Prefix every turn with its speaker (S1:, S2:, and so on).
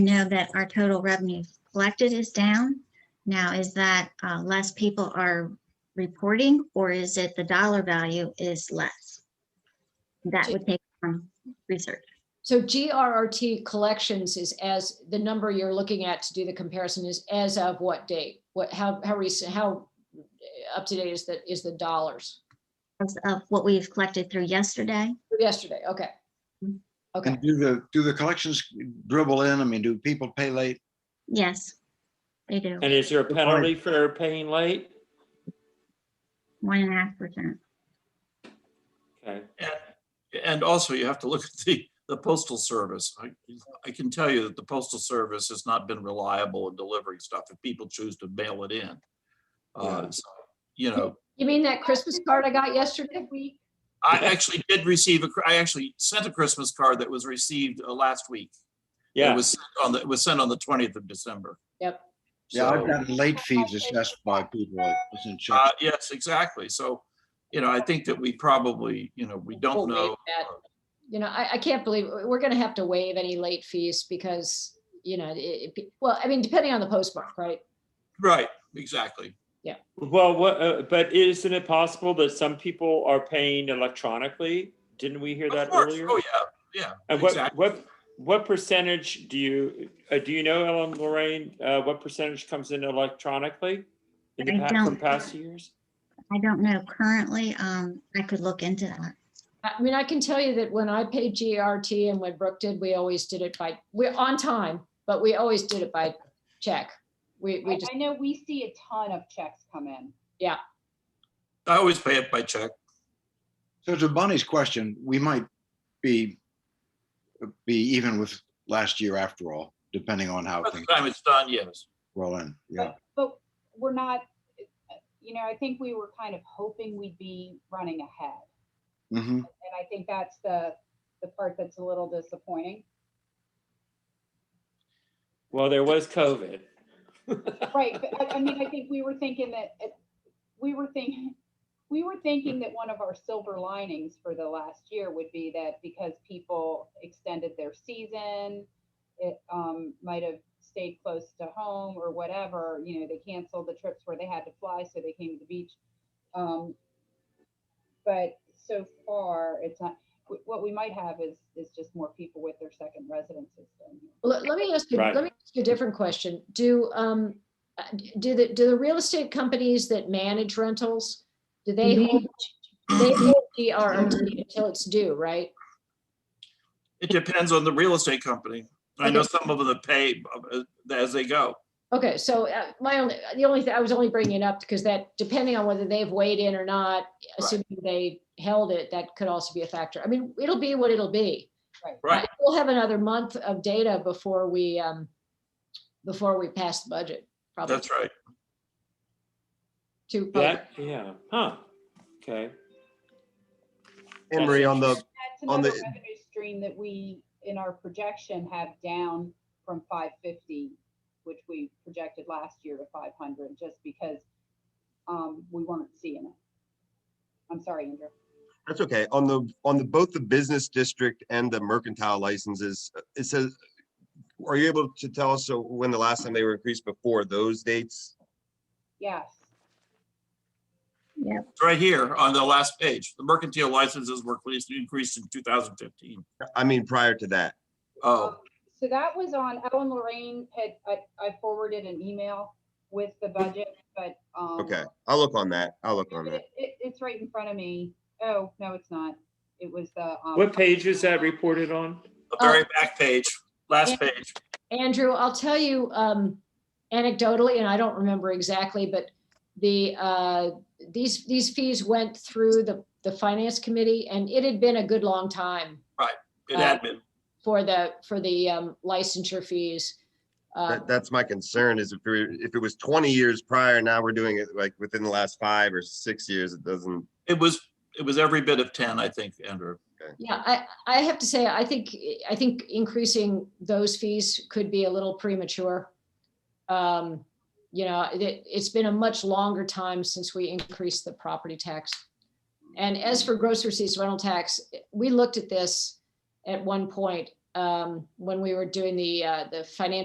S1: know that our total revenue collected is down. Now, is that uh, less people are reporting or is it the dollar value is less? That would take some research.
S2: So GRRT collections is as, the number you're looking at to do the comparison is as of what date? What, how, how recent, how up to date is the, is the dollars?
S1: As Of what we've collected through yesterday,
S2: Yesterday, okay. Okay,
S3: And do the, do the collections dribble in? I mean, do people pay late?
S1: yes, they do,
S4: And is there a
S3: Good point.
S4: penalty for paying late?
S1: one and a half percent.
S4: Okay,
S5: And- And also you have to look at the, the postal service. I, I can tell you that the postal service has not been reliable in delivering stuff if people choose to mail it in. Uh,
S4: Yeah.
S5: so, You know,
S2: you mean that Christmas card I got yesterday? We,
S5: I actually did receive, a cr- I actually sent a Christmas card that was received uh, last week. It
S4: yeah,
S5: was sent on the, it was sent on the twentieth of December.
S2: Yep.
S3: Yeah, I've
S5: So-
S3: gotten late fees assessed by people. I was in
S5: Uh,
S3: check.
S5: yes, exactly. So, you know, I think that we probably, you know, we don't know.
S2: You know, I, I can't believe, we're gonna have to waive any late fees because, you know, it, it- well, I mean, depending on the postmark, right?
S5: Right, exactly.
S4: well, what, uh, but isn't it possible that some people are paying electronically? Didn't we hear
S5: Of
S4: that
S5: course.
S4: earlier?
S5: Oh, yeah, yeah.
S4: And what,
S5: exactly.
S4: what, what percentage do you, uh, do you know, Ellen Lorraine, uh, what percentage comes in electronically? In the
S1: I
S4: past, from
S1: don't.
S4: past years?
S1: I don't know currently, um, I could look into that.
S2: I mean, I can tell you that when I paid GRT and when Brooke did, we always did it by, we're on time, but we always did it by check. We, we
S6: I,
S2: just,
S6: I know we see a ton of checks come in.
S5: I always pay it by check.
S3: So to Bonnie's question, we might be, be even with last year after all, depending on how
S5: By the
S3: things
S5: time it's done, yes.
S3: roll in. Yeah.
S6: But we're not, you know, I think we were kind of hoping we'd be running ahead.
S3: Mhm.
S6: And I think that's the, the part that's a little disappointing.
S4: Well, there was COVID.
S6: Right, but I, I mean, I think we were thinking that, it- we were thinking, we were thinking that one of our silver linings for the last year would be that because people extended their season, it, um, might have stayed close to home or whatever, you know, they canceled the trips where they had to fly, so they came to the beach. Um, but so far, it's not, wh- what we might have is, is just more people with their second residences. down here.
S2: let, let me ask you,
S4: Right.
S2: let me ask you a different question. Do, um, uh, do the, do the real estate companies that manage rentals, do they
S1: Mhm.
S2: hold, they hold GRT until it's due, right?
S5: It depends on the real estate company. I know some of them that pay uh, as they go.
S2: Okay, so uh, my only, the only, thing I was only bringing it up because that, depending on whether they've weighed in or not, assuming they held it, that could also be a factor. I mean, it'll be what it'll be.
S5: Right.
S2: We'll have another month of data before we, um, before we pass the budget, probably.
S5: That's right.
S2: Two,
S4: That, yeah, huh, okay.
S7: Emery, on the,
S6: That's
S7: on
S6: another
S7: the-
S6: revenue stream that we, in our projection, have down from five fifty, which we projected last year to five hundred, just because um, we weren't seeing it. I'm sorry, Andrew.
S7: that's okay, on the, on the, both the business district and the mercantile licenses, uh, it says, are you able to tell us uh, when the last time they were increased before those dates?
S6: Yes,
S5: It's right here on the last page. The mercantile licenses were released- increased in 2015.
S7: I mean, prior to that.
S5: Oh,
S6: so that was on, Ellen Lorraine had, I, I forwarded an email with the budget, but. um,
S7: Okay, I'll look on that. I'll look on that.
S6: It, it- it's right in front of me. Oh, no, it's not. It was the. um,
S4: What page is that reported on?
S5: the very back page, last page.
S2: Andrew, I'll tell you um, anecdotally, and I don't remember exactly, but the, uh, these, these fees went through the, the finance committee and it had been a good long time
S5: It had been.
S2: for the, for the um, licensure fees. Uh,
S7: That, that's my concern is if we're, if it was twenty years prior, now we're doing it like within the last five or six years, it doesn't.
S5: It was, it was every bit of 10, I think, Andrew.
S2: Yeah, I, I have to say, I think, I think increasing those fees could be a little premature. Um, You know, it, it's been a much longer time since we increased the property tax. And as for gross receipts rental tax, we looked at this at one point um, when we were doing the, uh, the financial